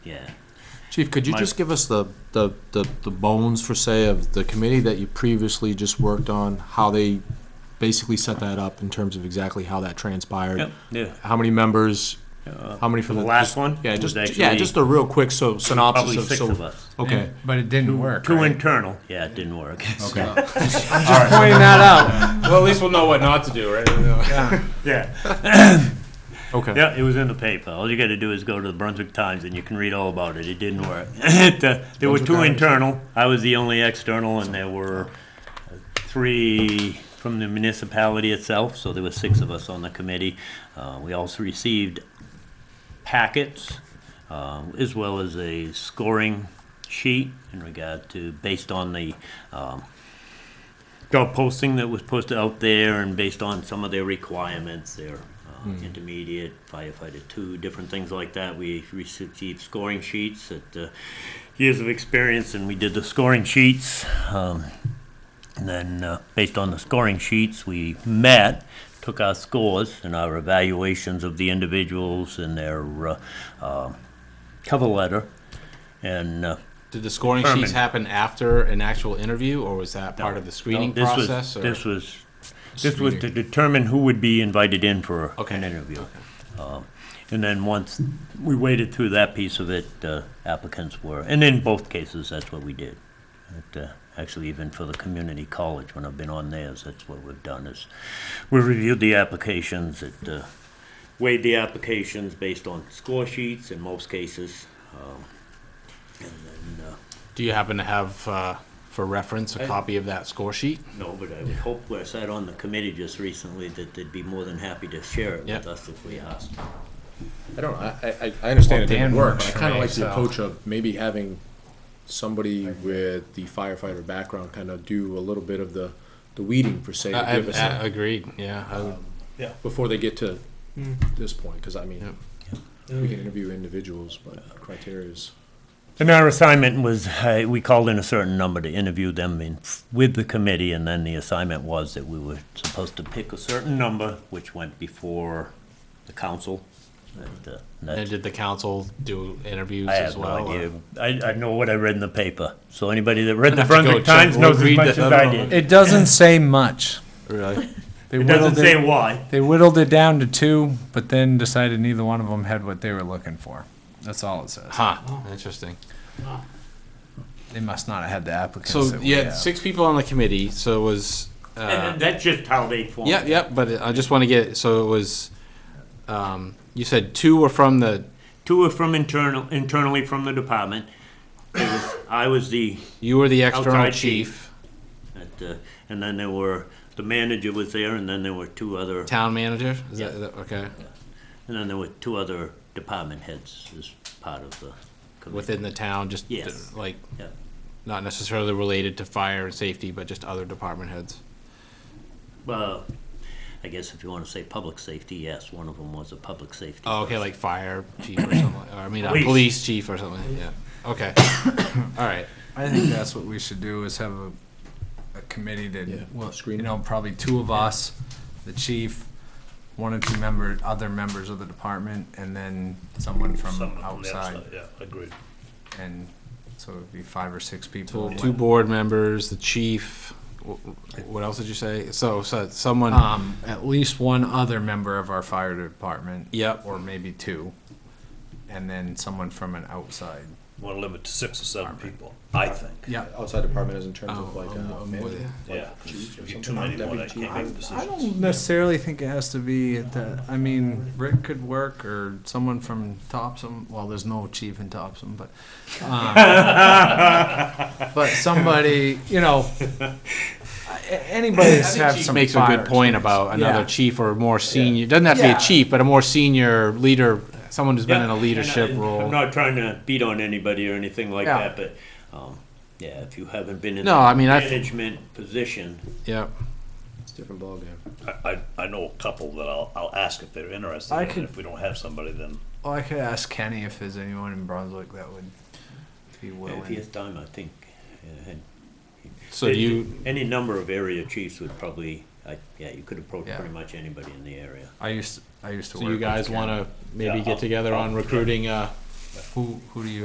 Yeah. Chief, could you My- just give us the, the, the the bones, for say, of the committee that you previously just worked on, how they basically set that up in terms of exactly how that transpired? Yeah. How many members, Uh, how many for the? The last just- one Yeah, was just, yeah, actually just a real quick so synopsis Probably of. six so- of us. Okay, But it didn't work. Two right? internal. Yeah, it didn't work. okay. Pointing that out. Well, at least we'll know what not to do, right? Yeah. Okay. Yeah, it was in the paper. All you gotta do is go to the Brunswick Times and you can read all about it. It didn't work. It, uh, There were two internal. I was the only external and there were uh, three from the municipality itself, so there were six of us on the committee. Uh, We also received packets um, as well as a scoring sheet in regard to, based on the um, job posting that was posted out there and based on some of their requirements, their uh, intermediate, firefighter two, different things like that. We received scoring sheets at uh, years of experience and we did the scoring sheets. Um, and then, uh, based on the scoring sheets, we met, took our scores and our evaluations of the individuals and their uh, uh, cover letter. And uh, Did the scoring Herman. sheets happen after an actual interview, or was that part of the screening this process? was or- this was this was to determine who would be invited in for Okay. an interview. Um, and then once we waited through that piece of it, uh, applicants were, and in both cases, that's what we did. It, uh, actually, even for the community college, when I've been on theirs, that's what we've done is we reviewed the applications, it uh, weighed the applications based on score sheets in most cases, um, and then. Uh, Do you happen to have, uh, for reference, a copy of that score sheet? No, but I would hope, where I sat on the committee just recently, that they'd be more than happy to share it Yep. with us if we asked. I don't, I, I, I understand it didn't Dan work, works but I for kinda me, like the so- approach of maybe having somebody with the firefighter background kinda do a little bit of the, the weeding, for say, to I- give us. a- I- I- Uh, Agreed, yeah. I would- before they get to this point, because I mean, we can interview individuals, but criteria is. And our assignment was, uh, we called in a certain number to interview them in, with the committee, and then the assignment was that we were supposed to pick a certain number, which went before the council. And, uh, that- And did the council do interviews I as have no well? uh, or- idea. I, I know what I read in the paper, so anybody that read the have to go Brunswick check. Times We'll knows as read much that. as I I don't know. did. It doesn't say much. They It whittled doesn't say why. They whittled it down to two, but then decided neither one of them had what they were looking for. That's all it says. Huh, interesting. They must not have had the applicants. So, that we yeah, have. six people on the committee, so it was, uh, And that's just how they formed. yeah, yeah, but I just want to get, so it was, um, you said two were from the, Two are from internal, internally from the department. It was- I was the, you were the external Outside chief, chief. at, uh, and then there were, the manager was there, and then there were two other, town manager? Is that, is that- okay, and then there were two other department heads as part of the committee. within the town, just Yes. like, Yeah. not necessarily related to fire and safety, but just other department heads. Well, I guess if you want to say public safety, yes, one of them was a public safety. Oh, okay, like fire chief or something, or I mean, uh, Police. police chief or something, yeah, okay, all right. I think that's what we should do is have a, a committee that, Yeah, well, screen you it. know, probably two of us, the chief, one or two member, other members of the department, and then someone from outside. Yeah, agreed. And so it'd be five or six So people. two board members, the chief, wh- what else did you say? So, so someone, Um, at least one other member of our fire department. Yep. Or maybe two. And then someone from an outside. want to limit to six or seven people, I think. Yeah. Outside department is in terms Oh, of, like, uh, manager, Yeah, 'cause if you get too many more, they can't make I decisions. don't necessarily think it has to be at the, I mean, Rick could work or someone from Topsom, well, there's no chief in Topsom, but. um, But somebody, you know, a- anybody that's had chief some makes a fire good point experience. about another Yeah. chief or more senior, doesn't have to be Yeah. a chief, but a more senior leader, someone who's been in a leadership uh, I'm role. not trying to beat on anybody or anything like Yeah. that, but, um, yeah, if you haven't been in No, a I mean, I- management position, Yep, It's a different ballgame. I, I, I know a couple that I'll, I'll ask if they're interested, I and could- if we don't have somebody, then Well, I could ask Kenny if there's anyone in Brunswick that would be If he has willing. time, I think. uh, and- so do you, Any number of area chiefs would probably, I- yeah, you could approach Yeah. pretty much anybody in the area. I used, I used to so work. you with guys Kenny. wanna maybe Yeah, get I'll- together on I'll- recruiting, uh, Who, who do you